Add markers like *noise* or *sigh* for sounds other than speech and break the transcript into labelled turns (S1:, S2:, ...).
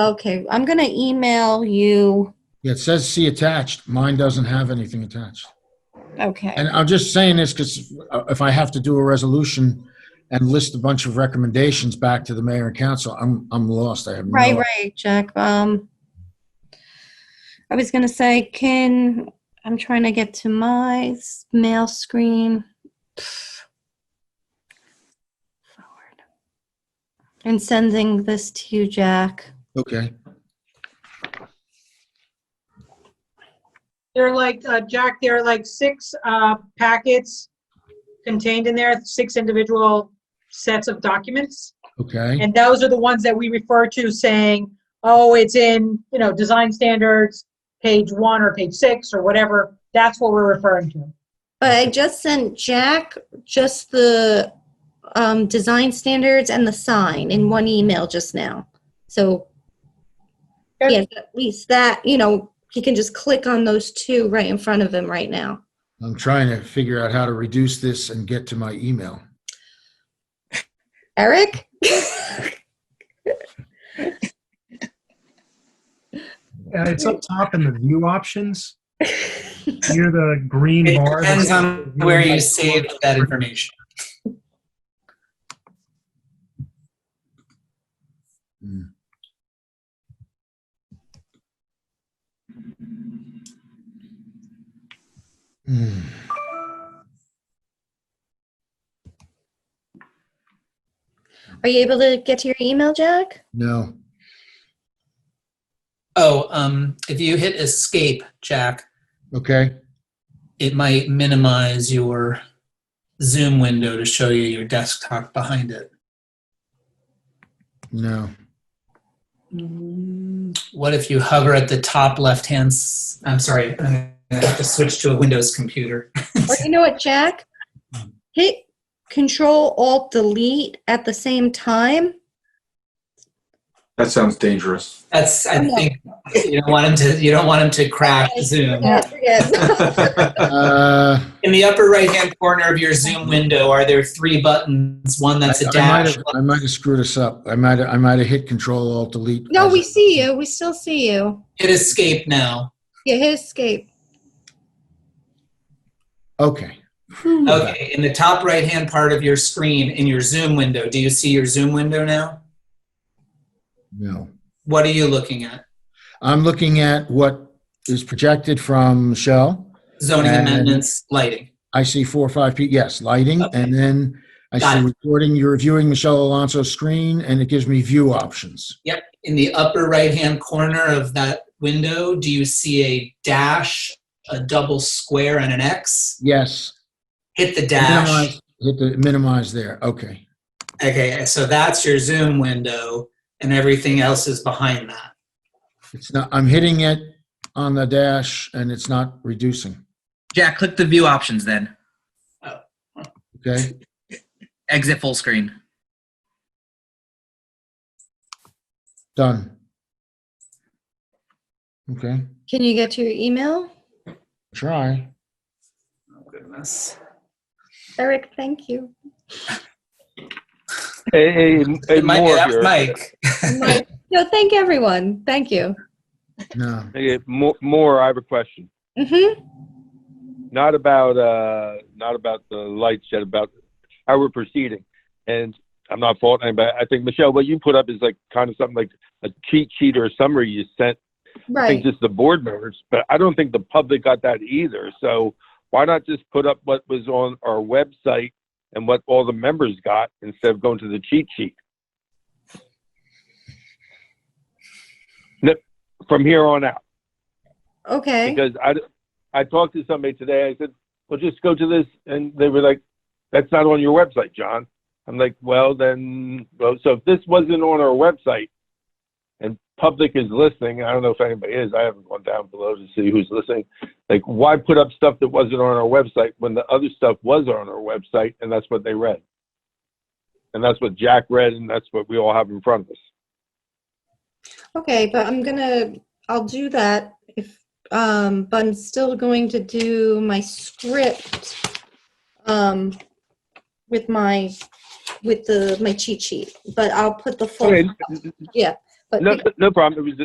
S1: Okay, I'm gonna email you.
S2: Yeah, It says see attached. Mine doesn't have anything attached.
S1: Okay,
S2: And I'm just saying this because if I have to do a resolution and list a bunch of recommendations back to the mayor and council, I'm, I'm lost. I have no.
S1: right, right, Jack. Um, I was gonna say, can, I'm trying to get to my s- mail screen. Forward. And sending this to you, Jack.
S2: Okay.
S3: There are like, uh, Jack, there are like six uh, packets contained in there, six individual sets of documents.
S2: Okay.
S3: And those are the ones that we refer to saying, oh, it's in, you know, design standards, page one or page six or whatever. That's what we're referring to.
S1: But I just sent Jack just the, um, design standards and the sign in one email just now. So,
S3: Okay.
S1: yeah, at least that, you know, he can just click on those two right in front of him right now.
S2: I'm trying to figure out how to reduce this and get to my email.
S1: Eric?
S4: Uh, it's up top in the view options. Near the green
S5: It
S4: bar.
S5: depends on where you save that information.
S2: Hmm.
S1: Are you able to get to your email, Jack?
S2: No.
S5: Oh, um, if you hit escape, Jack,
S2: Okay.
S5: it might minimize your Zoom window to show you your desktop behind it.
S2: No.
S5: Mm, What if you hover at the top left hand? S- I'm sorry, I'm gonna have to switch to a Windows computer.
S1: Or you know what, Jack? Hit Control Alt Delete at the same time.
S6: That sounds dangerous.
S5: *laughs* That's I think you don't want him to you don't want him to crash Zoom.
S1: Yeah, forget.
S2: Uh,
S5: In the upper right hand corner of your Zoom window, are there three buttons? One that's
S2: I-
S5: a
S2: I might
S5: dash.
S2: have- I might have screwed this up. I might, have- I might have hit Control Alt Delete.
S1: No, we see you. We still see you.
S5: Hit escape now.
S1: Yeah, hit escape.
S2: Okay.
S5: Okay, in the top right hand part of your screen in your Zoom window, do you see your Zoom window now?
S2: No.
S5: What are you looking at?
S2: I'm looking at what is projected from Michelle.
S5: Zoning
S2: And-
S5: amendments, lighting.
S2: I see four or five, pe- yes, lighting,
S5: Okay.
S2: and then I
S5: Got
S2: see
S5: it.
S2: recording, you're reviewing Michelle Alonso's screen, and it gives me view options.
S5: Yep, in the upper right hand corner of that window, do you see a dash, a double square, and an X?
S2: Yes.
S5: Hit the dash.
S2: Minimize, hit the minimize there, okay.
S5: Okay, so that's your Zoom window, and everything else is behind that.
S2: It's not, I'm hitting it on the dash, and it's not reducing,
S7: Jack, click the view options then.
S2: okay?
S7: Exit full screen.
S2: Done. Okay,
S1: Can you get to your email?
S2: try.
S5: Oh, goodness.
S1: Eric, thank you.
S8: Hey, hey, hey,
S5: It might be
S8: more
S5: that
S8: here.
S5: Mike.
S1: Mike. No, thank everyone. Thank you.
S2: No,
S8: Hey, more, more. I have a question.
S1: Mm-hmm.
S8: Not about, uh, not about the lights yet. About how we're proceeding. And I'm not faulting, but I think Michelle, what you put up is like kind of something like a cheat sheet or a summary you sent. I
S1: Right.
S8: think just the board members, but I don't think the public got that either. So why not just put up what was on our website and what all the members got instead of going to the cheat sheet? Nip- From here on out.
S1: Okay.
S8: because I, I talked to somebody today. I said, well, just go to this. And they were like, that's not on your website, John. I'm like, well, then, well, so if this wasn't on our website and public is listening, I don't know if anybody is. I haven't gone down below to see who's listening. Like, why put up stuff that wasn't on our website when the other stuff was on our website and that's what they read? And that's what Jack read and that's what we all have in front of us.
S1: Okay, but I'm gonna, I'll do that if, um, but I'm still going to do my script, um, with my, with the, my cheat sheet, but I'll put the full,
S8: Okay,
S1: yeah, but
S8: No,
S1: the-
S8: no problem. It was